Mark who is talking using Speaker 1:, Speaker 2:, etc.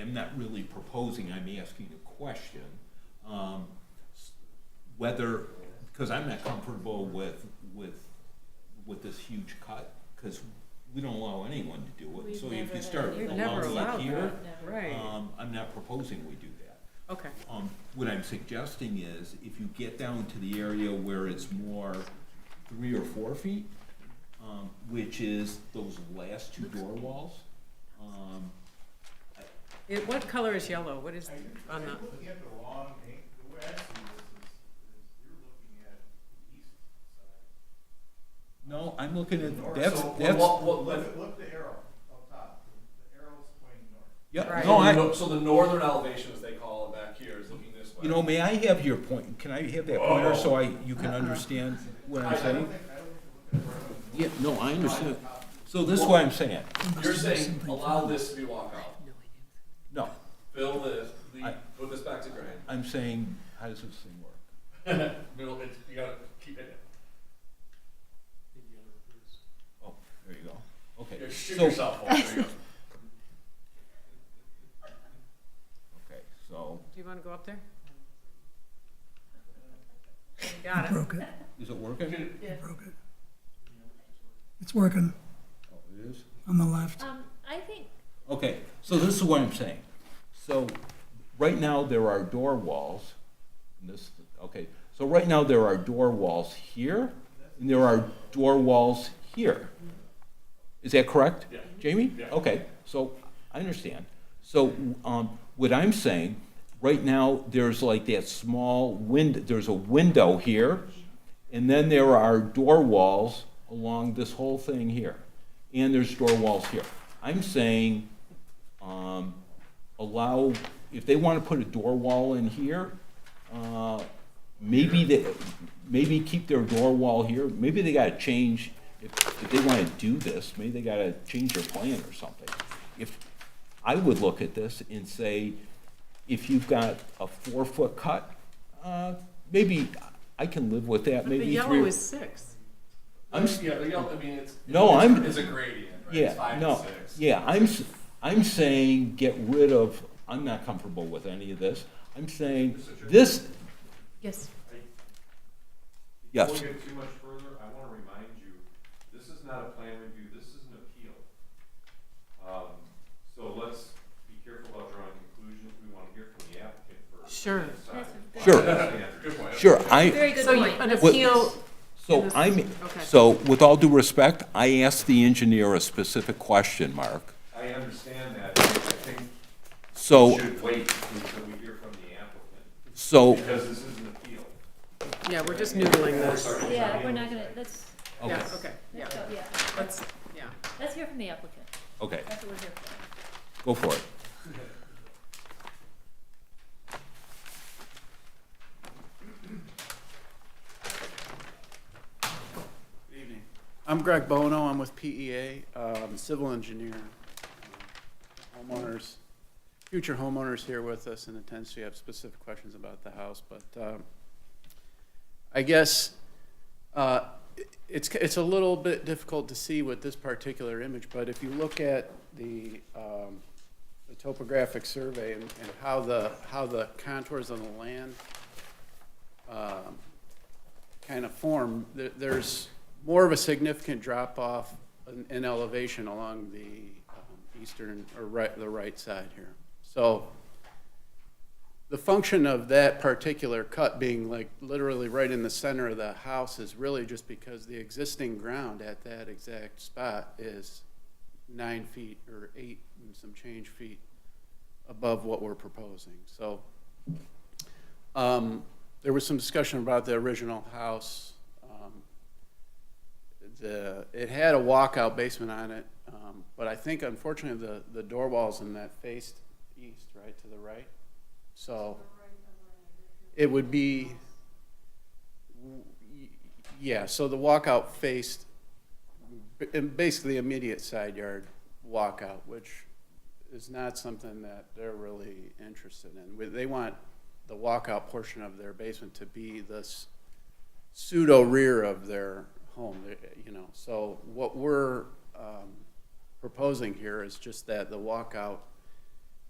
Speaker 1: I'm not really proposing, I'm asking a question. Um, s- Whether, because I'm not comfortable with, with, with this huge cut, because we don't allow anyone to do it.
Speaker 2: We've
Speaker 1: So if
Speaker 2: never
Speaker 1: you
Speaker 2: had
Speaker 1: start
Speaker 2: anybody.
Speaker 1: with
Speaker 2: You've
Speaker 1: a
Speaker 3: never
Speaker 1: lump
Speaker 3: allowed
Speaker 1: sum here,
Speaker 2: Never.
Speaker 3: Right,
Speaker 1: um, I'm not proposing we do that.
Speaker 3: okay.
Speaker 1: Um, what I'm suggesting is, if you get down to the area where it's more three or four feet, um, which is those last two door walls, um,
Speaker 3: It, what color is yellow? What is, on
Speaker 4: Are you
Speaker 3: the,
Speaker 4: looking at the wrong, ang- the way I see this is, is you're looking at the east side.
Speaker 1: no, I'm looking at,
Speaker 4: North.
Speaker 1: that's,
Speaker 4: So,
Speaker 1: that's,
Speaker 4: Look, at- look at the arrow up top, the arrow's pointing north.
Speaker 1: yeah,
Speaker 3: Right.
Speaker 1: no, I,
Speaker 5: No, so the northern elevation, as they call it back here, is looking this way.
Speaker 1: you know, may I have your point, can I have that pointer so I, you can understand what I'm
Speaker 4: I don't
Speaker 1: saying?
Speaker 4: think, I don't think they're looking at
Speaker 1: Yeah, no, I understand, so this is what I'm saying,
Speaker 5: You're saying allow this to be walkout,
Speaker 1: no,
Speaker 5: fill this, the,
Speaker 1: I-
Speaker 5: put this back to grade.
Speaker 1: I'm saying, how does this thing work?
Speaker 5: Middle, it's, you gotta keep it,
Speaker 1: Oh, there you go, okay.
Speaker 5: you shoot
Speaker 1: So-
Speaker 5: yourself. Paul. There you go.
Speaker 1: Okay, so,
Speaker 3: do you wanna go up there? Got it.
Speaker 1: is it working?
Speaker 6: It's working
Speaker 1: Oh, it is?
Speaker 6: on the left.
Speaker 2: Um, I think,
Speaker 1: Okay, so this is what I'm saying. So, right now, there are door walls, and this, okay, so right now, there are door walls here, and there are door walls here. Is that correct?
Speaker 5: Yeah.
Speaker 1: Jamie?
Speaker 5: Yeah.
Speaker 1: Okay, so, I understand. So, um, what I'm saying, right now, there's like that small wind, there's a window here, and then there are door walls along this whole thing here, and there's door walls here. I'm saying, um, allow, if they wanna put a door wall in here, uh, maybe they, maybe keep their door wall here, maybe they gotta change, if, if they wanna do this, maybe they gotta change their plan or something. If, I would look at this and say, if you've got a four-foot cut, uh, maybe, I can live with that,
Speaker 3: But the
Speaker 1: maybe three.
Speaker 3: yellow is six.
Speaker 1: I'm, s-
Speaker 5: Yeah, the yellow, I mean, it's.
Speaker 1: No,
Speaker 5: it's-
Speaker 1: I'm-
Speaker 5: It's a gradient, right? It's
Speaker 1: yeah,
Speaker 5: five to
Speaker 1: no,
Speaker 5: six.
Speaker 1: yeah, I'm, s- I'm saying get rid of, I'm not comfortable with any of this. I'm saying,
Speaker 4: Mr. Chairman?
Speaker 1: this,
Speaker 3: Yes.
Speaker 1: yes.
Speaker 4: Before we get too much further, I wanna remind you, this is not a plan review, this is an appeal. Um, so let's be careful about drawing conclusions, we wanna hear from the applicant first.
Speaker 3: Sure.
Speaker 4: and decide.
Speaker 2: That's-
Speaker 1: Sure.
Speaker 4: Understand.
Speaker 5: Good point.
Speaker 1: Sure, I,
Speaker 2: very good
Speaker 3: So you-
Speaker 2: point.
Speaker 3: an
Speaker 1: What-
Speaker 3: appeal,
Speaker 1: so I'm,
Speaker 3: Okay.
Speaker 1: so with all due respect, I asked the engineer a specific question, Mark.
Speaker 4: I understand that, I think we
Speaker 1: So,
Speaker 4: should wait until we hear from the applicant,
Speaker 1: so,
Speaker 4: because this is an appeal.
Speaker 3: yeah, we're just noodling this.
Speaker 2: Yeah, we're not gonna, let's,
Speaker 1: okay,
Speaker 3: Yeah, okay, yeah,
Speaker 2: let's go, yeah.
Speaker 3: let's, yeah.
Speaker 2: Let's hear from the applicant.
Speaker 1: okay,
Speaker 2: That's what we're here for.
Speaker 1: go for it.
Speaker 7: Good evening. I'm Greg Bono. I'm with PEA, um, civil engineer. Homeowners, future homeowners here with us in attendance. We have specific questions about the house, but um, I guess uh, it- it's, it's a little bit difficult to see with this particular image, but if you look at the, um, the topographic survey and and how the, how the contours on the land um, kind of form, there, there's more of a significant drop-off in, in elevation along the um, eastern, or right, the right side here. So the function of that particular cut being like literally right in the center of the house is really just because the existing ground at that exact spot is nine feet or eight and some change feet above what we're proposing. So um, there was some discussion about the original house. Um, The, it had a walkout basement on it, um, but I think unfortunately the, the door walls in that faced east, right, to the right? So it would be, w- y- yeah, so the walkout faced b- in basically immediate side yard walkout, which is not something that they're really interested in. We- They want the walkout portion of their basement to be this pseudo rear of their home, eh, you know. So what we're um, proposing here is just that the walkout